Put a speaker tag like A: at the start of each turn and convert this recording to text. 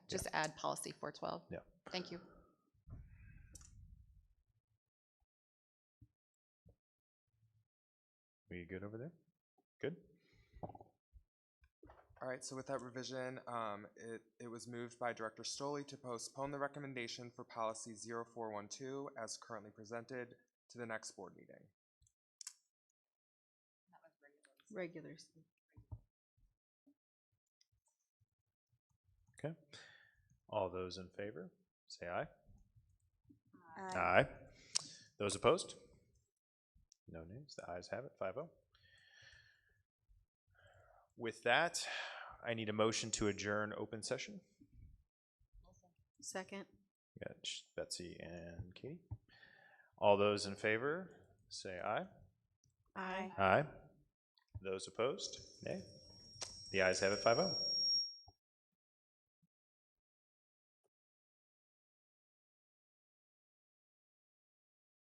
A: just add policy four twelve.
B: Yeah.
A: Thank you.
B: We good over there? Good?
C: All right, so with that revision, um, it, it was moved by Director Stoley to postpone the recommendation for policy 0412 as currently presented to the next board meeting.
D: Regulars.
B: Okay. All those in favor, say aye.
D: Aye.
B: Those opposed? No names. The ayes have it, 5-0. With that, I need a motion to adjourn open session.
D: Second.
B: We got Sh- Betsy and Katie. All those in favor, say aye.
D: Aye.
B: Aye. Those opposed, nay. The ayes have it, oh. 5-0.